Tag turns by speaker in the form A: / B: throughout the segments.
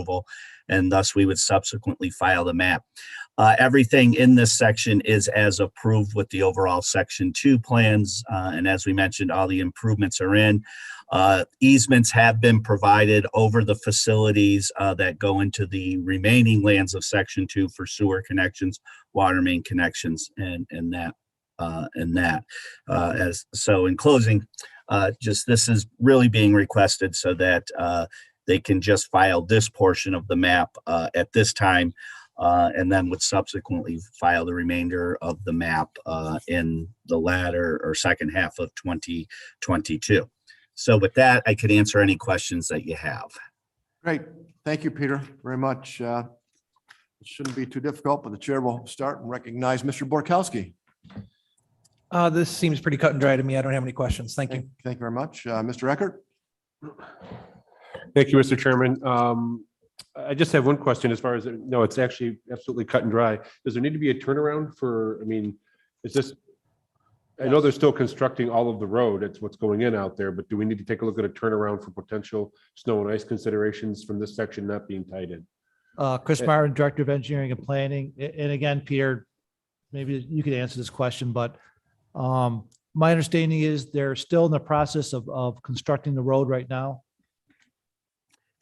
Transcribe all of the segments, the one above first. A: approval, and thus we would subsequently file the map. Uh, everything in this section is as approved with the overall section two plans, uh, and as we mentioned, all the improvements are in. Uh, easements have been provided over the facilities, uh, that go into the remaining lands of section two for sewer connections, water main connections, and, and that, uh, and that. Uh, as, so in closing, uh, just this is really being requested so that, uh, they can just file this portion of the map, uh, at this time, uh, and then would subsequently file the remainder of the map, uh, in the latter or second half of twenty twenty-two. So with that, I could answer any questions that you have.
B: Great. Thank you, Peter, very much. Uh, It shouldn't be too difficult, but the chair will start and recognize Mr. Borkowski.
C: Uh, this seems pretty cut and dry to me. I don't have any questions. Thank
B: Thank
C: you.
B: thank you very much. Uh, Mr. Eckert?
D: Thank you, Mr. Chairman. Um, I just have one question as far as, no, it's actually absolutely cut and dry. Does there need to be a turnaround for, I mean, is this? I know they're still constructing all of the road. It's what's going in out there, but do we need to take a look at a turnaround for potential snow and ice considerations from this section not being tied in?
E: Uh, Chris
D: Yeah.
E: Myron, Director of Engineering and Planning. A- And again, Peter, maybe you could answer this question, but um, my understanding is they're still in the process of, of constructing the road right now.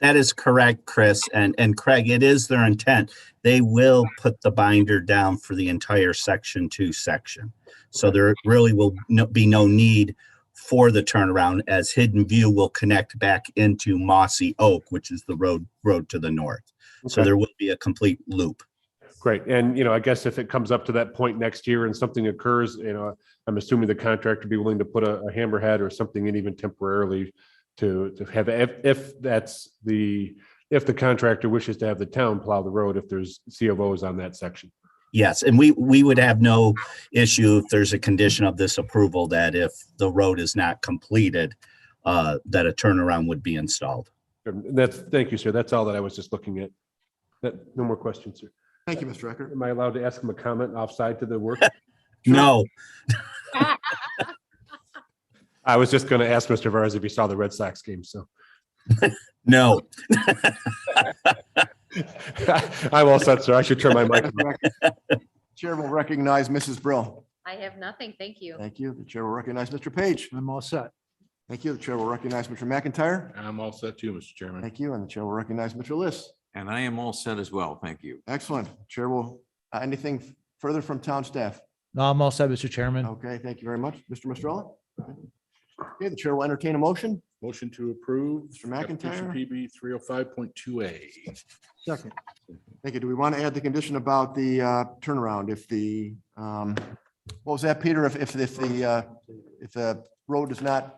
A: That is correct, Chris. And, and Craig, it is their intent. They will put the binder down for the entire section two section. So there really will no- be no need for the turnaround as Hidden View will connect back into Mossy Oak, which is the road, road to the north. So
D: Okay.
A: there will be a complete loop.
D: Great. And, you know, I guess if it comes up to that point next year and something occurs, you know, I'm assuming the contractor would be willing to put a a hammerhead or something in even temporarily to, to have, if, if that's the, if the contractor wishes to have the town plow the road, if there's COOs on that section.
A: Yes, and we, we would have no issue if there's a condition of this approval that if the road is not completed, uh, that a turnaround would be installed.
D: And Um, That's, thank you, sir. That's all that I was just looking at. That, no more questions, sir.
B: Thank you, Mr. Eckert.
D: Am I allowed to ask him a comment offside to the work?
A: No,
D: I was just going to ask Mr. Vars if he saw the Red Sox game, so.
A: no.
D: I'm all set, sir. I should turn my mic.
B: Chair will recognize Mrs. Brill.
F: I have nothing, thank you.
B: Thank you. The chair will recognize Mr. Page.
E: I'm all set.
B: Thank you. The chair will recognize Mr. McIntyre.
G: I'm all set too, Mr. Chairman.
B: Thank you. And the chair will recognize Mr. List.
G: And I am all set as well. Thank you.
B: Excellent. Chair will, uh, anything further from town staff?
E: No, I'm all set, Mr. Chairman.
B: Okay, thank you very much. Mr. Mistrella? Okay, the chair will entertain a motion.
G: Motion to approve.
B: Mr. McIntyre?
G: application PB three oh five point two A.
B: Second. Thank you. Do we want to add the condition about the uh, turnaround if the, um, what was that, Peter? If, if, if the, uh, if the road is not,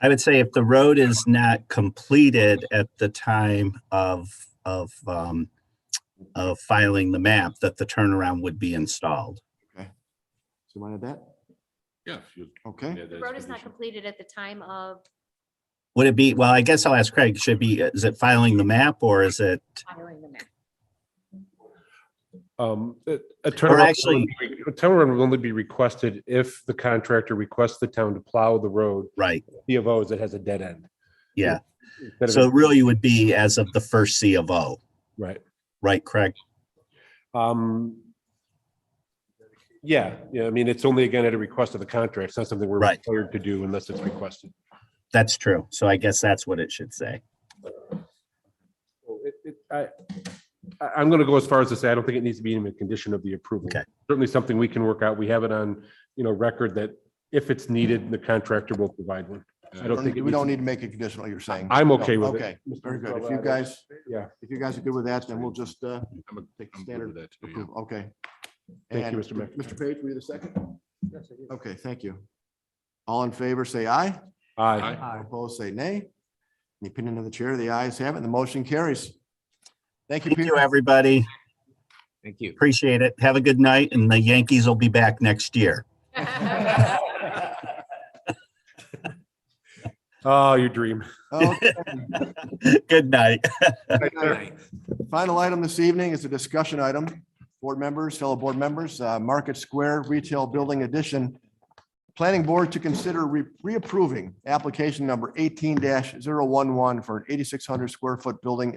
A: I would say if the road is not completed at the time of, of, um, of filing the map, that the turnaround would be installed.
B: so wanted that?
G: Yeah. if you-
B: Okay.
G: yeah,
F: The
G: that's
F: road is not
G: condition.
F: completed at the time of
A: Would it be, well, I guess I'll ask Craig, should be, is it filing the map or is it,
F: filing the map.
D: Um, a a turnaround.
A: actually-
D: A turnaround will only be requested if the contractor requests the town to plow the road,
A: right,
D: C of O's that has a dead end.
A: yeah.
D: Instead of
A: So
D: it-
A: it really would be as of the first C of O,
D: Right.
A: right, Craig?
D: Um. Yeah, yeah, I mean, it's only again at a request of the contract. It's not something we're
A: Right.
D: required to do unless it's requested.
A: That's true. So I guess that's what it should say.
D: So it- it- I, I- I'm going to go as far as to say, I don't think it needs to be in a condition of the approval.
A: Okay.
D: Certainly something we can work out. We have it on, you know, record that if it's needed, the contractor will provide one. I don't think. it
B: We don't
D: needs
B: need to make it conditional, you're saying?
D: I'm okay with it.
B: Okay,
D: Mr.
B: very good. If
D: Vella, I
B: you
D: don't-
B: guys,
D: Yeah,
B: if you guys are good with that, then we'll just uh,
G: I'm a-
B: take the
G: I'm good
B: standard
G: with that too. yeah.
B: approval. Okay.
D: Thank
B: And
D: you, Mr. Mc-
B: Mr. Page, were you the second? Okay, thank you. All in favor, say aye.
D: aye.
E: Aye.
B: Opposed, say nay. In The opinion of the chair, the ayes have it, the motion carries. Thank you,
A: Thank you,
B: Peter.
A: everybody.
G: Thank you.
A: Appreciate it. Have a good night and the Yankees will be back next year.
D: Oh, your dream.
B: Okay.
A: Good night.
B: Final item this evening is a discussion item. Board members, fellow board members, uh, Market Square Retail Building Addition planning board to consider re- reapproving application number eighteen 11 for an eighty-six hundred square foot building